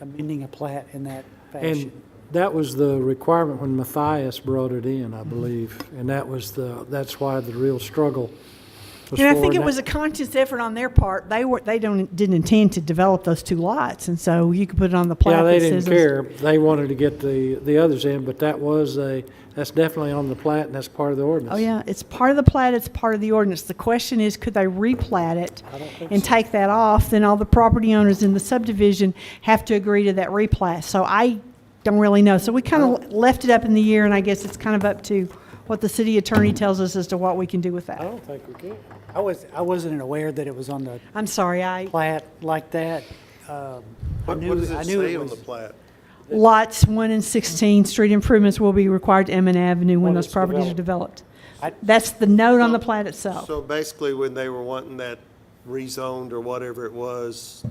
amending a plat in that And fashion. that was the requirement when Matthias brought it in, I believe, and that was the, that's why the real struggle was And I for think it that. was a conscious effort on their part. They were, they don't, didn't intend to develop those two lots, and so you could put it on the Yeah, plat they that didn't says. care. They wanted to get the, the others in, but that was a, that's definitely on the plat and that's part of the ordinance. Oh, yeah, it's part of the plat, it's part of the ordinance. The question is, could they replat it and take that off? Then all the property owners in the subdivision have to agree to that replat. So I don't really know. So we kind of left it up in the air, and I guess it's kind of up to what the city attorney tells us as to what we can do with I that. don't think we could. I was, I wasn't aware that it was on the I'm sorry, I, plat like that. Um, I What what knew, does I it knew say it on the was, plat? lots 1 and 16, street improvements will be required to Emin Avenue when When those it's properties are developed. That's the note on the plat itself. So basically, when they were wanting that rezoned or whatever it was,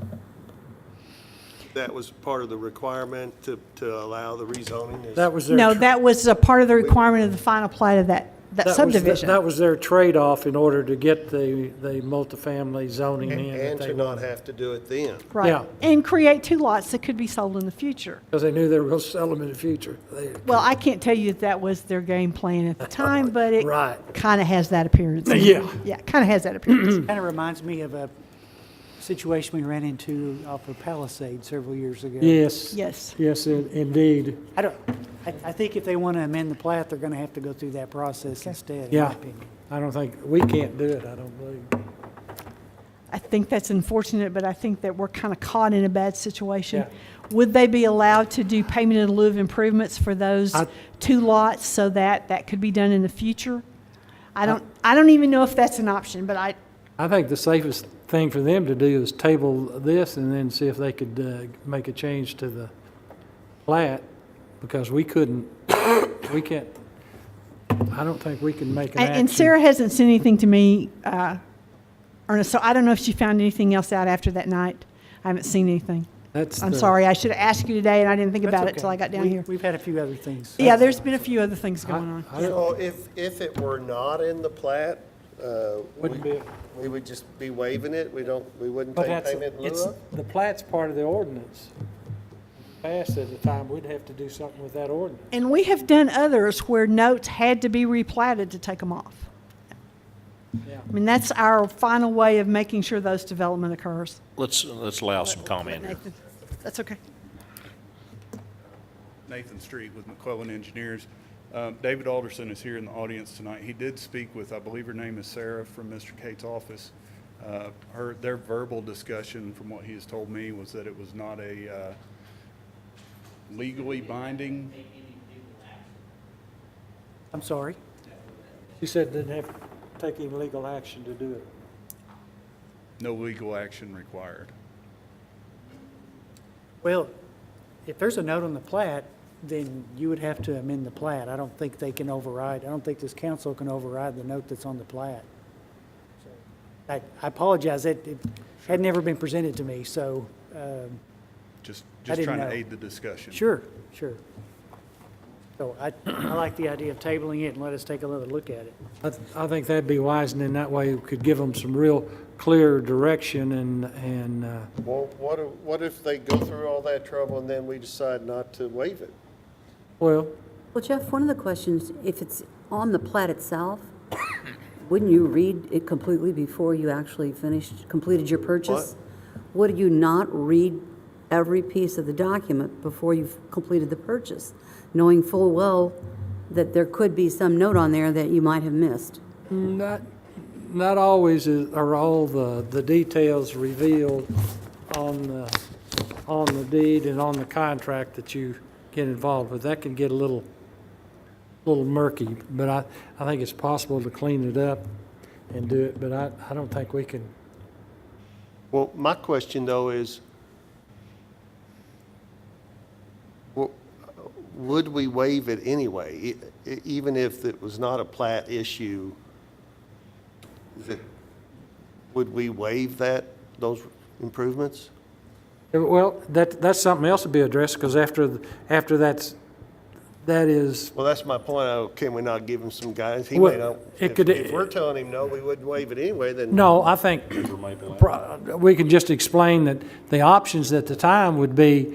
that was part of the requirement to, to allow the rezoning? is- That was their. No, tr- that was a part of the requirement of the final plat of that, that that was the- subdivision. That was their trade-off in order to get the, the multifamily zoning in. that And they to not have to do it then. Yeah. Right, and create two lots that could be sold in the future. Because they knew they were going to sell them in the future. They- Well, I can't tell you that that was their game plan at the time, but it Right. kind of has that appearance. Yeah. Yeah, kind of has that appearance. kind of reminds me of a situation we ran into off of Palisade several years ago. Yes. Yes. Yes, in- indeed. I don't, I, I think if they want to amend the plat, they're going to have to go through that process instead, in Yeah. my opinion. I don't think, we can't do it, I don't believe. I think that's unfortunate, but I think that we're kind of caught in a bad situation. Yeah. Would they be allowed to do payment in lieu of improvements for those I- two lots so that that could be done in the future? I don't, I don't even know if that's an option, but I, I think the safest thing for them to do is table this and then see if they could uh, make a change to the plat, because we couldn't, we can't, I don't think we can make an And- action. And Sarah hasn't sent anything to me, uh, Ernest, so I don't know if she found anything else out after that night. I haven't seen anything. That's I'm the- sorry, I should have asked you today, and I didn't think That's about it till okay. I got down We- here. We've had a few other things. Yeah, there's been a few other things I- going on. I don't- So if, if it were not in the plat, uh, Wouldn't we- be- we would just be waiving it, we don't, we wouldn't But take that's, payment in lieu it's, of? the plat's part of the ordinance. Passed at the time, we'd have to do something with that ordinance. And we have done others where notes had to be replatted to take them off. Yeah. I mean, that's our final way of making sure those development occurs. Let's, let's allow some comment here. Nathan, That's okay. Nathan Street with McClellan Engineers. Um, David Alderson is here in the audience tonight. He did speak with, I believe her name is Sarah from Mr. Cade's office. Uh, Her, their verbal discussion, from what he has told me, was that it was not a uh, legally binding I'm sorry. She said didn't have to take any legal action to do it. No legal action required. Well, if there's a note on the plat, then you would have to amend the plat. I don't think they can override, I don't think this council can override the note that's on the plat. I I apologize, it it had never been presented to me, so, um, Just, I just didn't trying to know. aid the discussion. sure, sure. So I I like the idea of tabling it and let us take another look at it. I, th- I think that'd be wise, and then that way we could give them some real clear direction and, and, uh, Well, what, if- what if they go through all that trouble and then we decide not to waive it? well, Well, Jeff, one of the questions, if it's on the plat itself, wouldn't you read it completely before you actually finished, completed your purchase? Would you not read every piece of the document before you've completed the purchase, knowing full well that there could be some note on there that you might have missed? not, not always is- are all the, the details revealed on the, on the deed and on the contract that you get involved with. That can get a little, little murky, but I, I think it's possible to clean it up and do it, but I, I don't think we can. Well, my question though is, well, would we waive it anyway, e- e- even if it was not a plat issue? is it- Would we waive that, those improvements? Well, that, that's something else to be addressed, because after, th- after that's, that is, Well, that's my point. Oh, Can we not give him some guidance? He Well, may not. it if- could- If we're telling him no, we wouldn't waive it anyway, then. no, I think pro- we can just explain that the options at the time would be